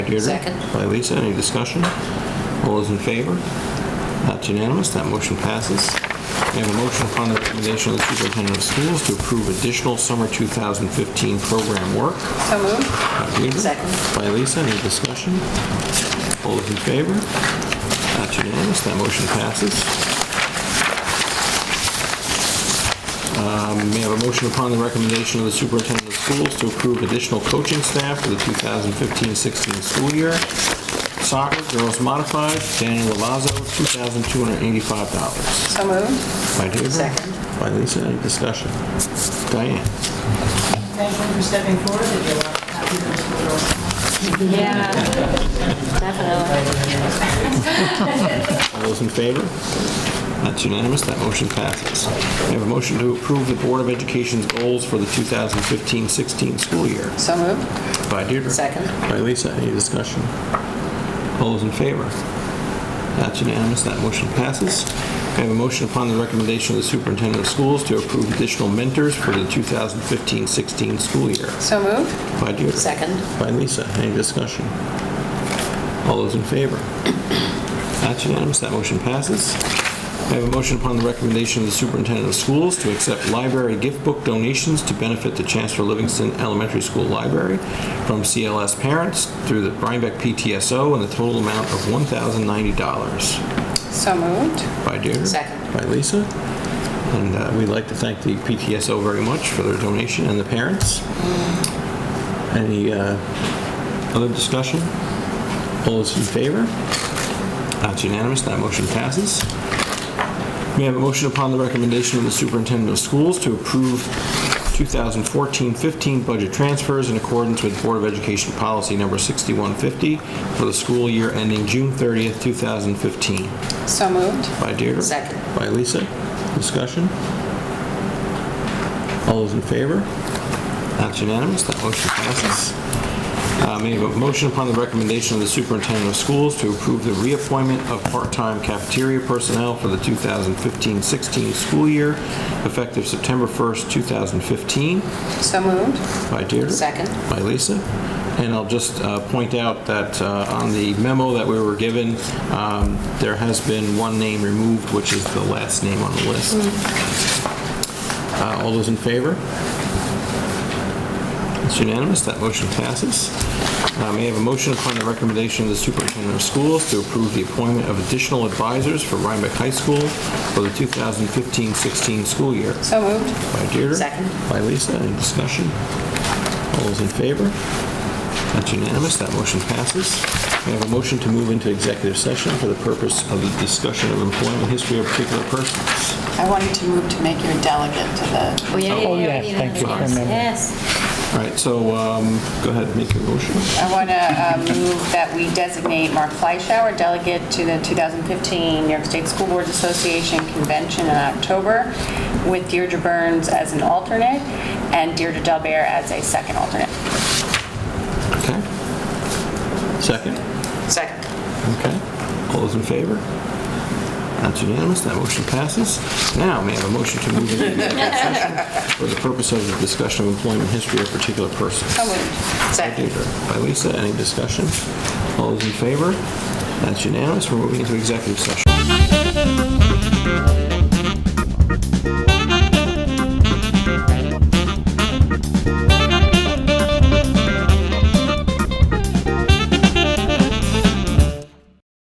Deirdre? Second. By Lisa, any discussion? All those in favor? That's unanimous, that motion passes. We have a motion upon the recommendation of the superintendent of schools to approve additional summer 2015 program work. So moved. By Deirdre? Second. By Lisa, any discussion? All those in favor? That's unanimous, that motion passes. Um, May I have a motion upon the recommendation of the superintendent of schools to approve additional coaching staff for the 2015-16 school year? Soccer, girls modified, Daniel Lavazzo, $2,285. So moved. By Deirdre? Second. By Lisa, any discussion? Diane? Thank you for stepping forward and your happy to Yeah, definitely. All those in favor? That's unanimous, that motion passes. May I have a motion to approve the Board of Education's goals for the 2015-16 school year? So moved. By Deirdre? Second. By Lisa, any discussion? All those in favor? That's unanimous, that motion passes. May I have a motion upon the recommendation of the superintendent of schools to approve additional mentors for the 2015-16 school year? So moved. By Deirdre? Second. By Lisa, any discussion? All those in favor? That's unanimous, that motion passes. May I have a motion upon the recommendation of the superintendent of schools to accept library gift book donations to benefit the Chancellor Livingston Elementary School Library from CLS parents through the Rhinebeck PTSO in the total amount of $1,090. So moved. By Deirdre? Second. By Lisa. And uh, we'd like to thank the PTSO very much for their donation and the parents. Any uh, other discussion? All those in favor? That's unanimous, that motion passes. May I have a motion upon the recommendation of the superintendent of schools to approve 2014-15 budget transfers in accordance with Board of Education Policy Number 6150 for the school year ending June 30th, 2015? So moved. By Deirdre? Second. By Lisa. Discussion? All those in favor? That's unanimous. That motion passes. Uh, May I have a motion upon the recommendation of the superintendent of schools to approve the reappointment of part-time cafeteria personnel for the 2015-16 school year, effective September 1st, 2015? So moved. By Deirdre? Second. By Lisa. And I'll just uh, point out that uh, on the memo that we were given, um, there has been one name removed, which is the last name on the list. Uh, All those in favor? It's unanimous, that motion passes. Uh, May I have a motion upon the recommendation of the superintendent of schools to approve the appointment of additional advisors for Rhinebeck High School for the 2015-16 school year? So moved. By Deirdre. Second. By Lisa. Any discussion? All those in favor? That's unanimous. That motion passes. We have a motion to move into executive session for the purpose of the discussion of employment history of particular persons. I wanted to move to make you a delegate to the Oh, yeah, Oh, yeah, yeah. yeah, yeah, thank you, I yes, remember. Yes. All right, so um, go ahead, make your motion. I want to move that we designate Mark Fleischauer delegate to the 2015 New York State School Boards Association Convention in October, with Deirdre Burns as an alternate and Deirdre Delbear as a second alternate. Okay? Second? Second. Okay. All those in favor? That's unanimous. That motion passes. Now, may I have a motion to move into executive session for the purpose of the discussion of employment history of particular persons? So moved. By Second. Deirdre. By Lisa, any discussion? All those in favor? That's unanimous. We're moving into executive session.